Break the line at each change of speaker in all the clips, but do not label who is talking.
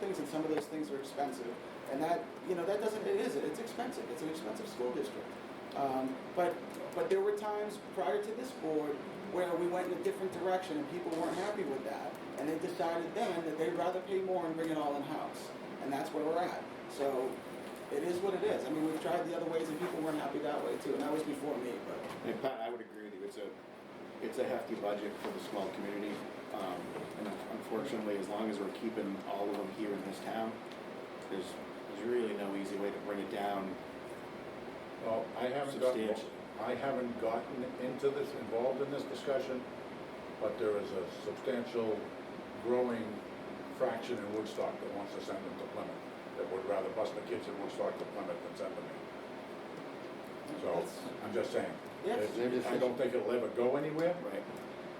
things, and some of those things are expensive. And that, you know, that doesn't, it is, it's expensive, it's an expensive school district. Um, But, but there were times prior to this board where we went in a different direction and people weren't happy with that. And they decided then that they'd rather pay more and bring it all in-house. And that's where we're at. So it is what it is. I mean, we've tried the other ways and people weren't happy that way too, and that was before me, but.
And Pat, I would agree with you, it's a, it's a hefty budget for the small community. Um, And unfortunately, as long as we're keeping all of them here in this town, there's, there's really no easy way to bring it down.
Well, I haven't gotten,
Substantial.
I haven't gotten into this, involved in this discussion, but there is a substantial growing fraction in Woodstock that wants to send them to Plymouth, that would rather bus the kids in Woodstock to Plymouth than send them here. So, I'm just saying.
Yes.
It's- I don't think it'll ever go anywhere,
Right. I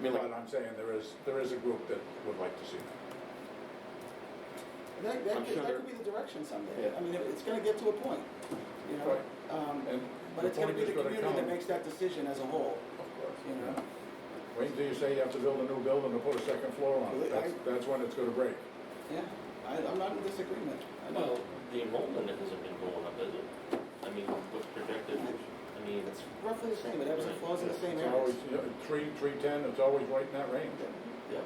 mean,
but
like,
I'm saying there is, there is a group that would like to see that.
That, that
I'm
could,
sure
that
there-
could be the direction someday.
Yeah.
I mean, it- it's gonna get to a point, you know?
Right.
Um,
And
But it's gonna be the
point is
community
gonna
that
come-
makes that decision as a whole.
Of course,
you know.
yeah. Wait until you say you have to build a new building to put a second floor on it, that's, that's when it's gonna break.
Yeah, I, I'm not in disagreement. I
Well,
know.
the enrollment hasn't been going up, has it? I mean, what's projected, I mean,
It's roughly the same, it ebbs and flows in the same
It's always,
areas.
you know, three, three ten, it's always right in that range.
yeah,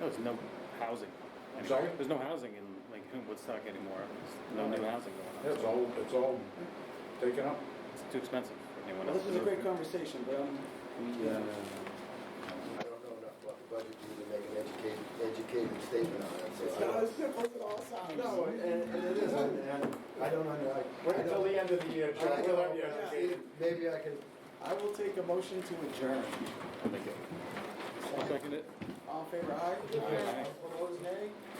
No, there's no housing.
I'm sorry?
There's no housing in, like, in Woodstock anymore. There's no new housing
Yeah,
going on.
It's all, it's all taken up.
It's too expensive for anyone
Well,
else.
this is a great conversation, but, um,
We, uh, I don't know enough about the budget to even make an educated, educated statement on it, so
it's
I
not as
don't.
simple as it all sounds.
No, and, and it is, and and I don't under, I. I don't-
end of the year,
I don't-
yeah.
see, Maybe I can,
I will take a motion to adjourn.
I'll second it.
All in favor, aye?
Aye.
Opposed, nay?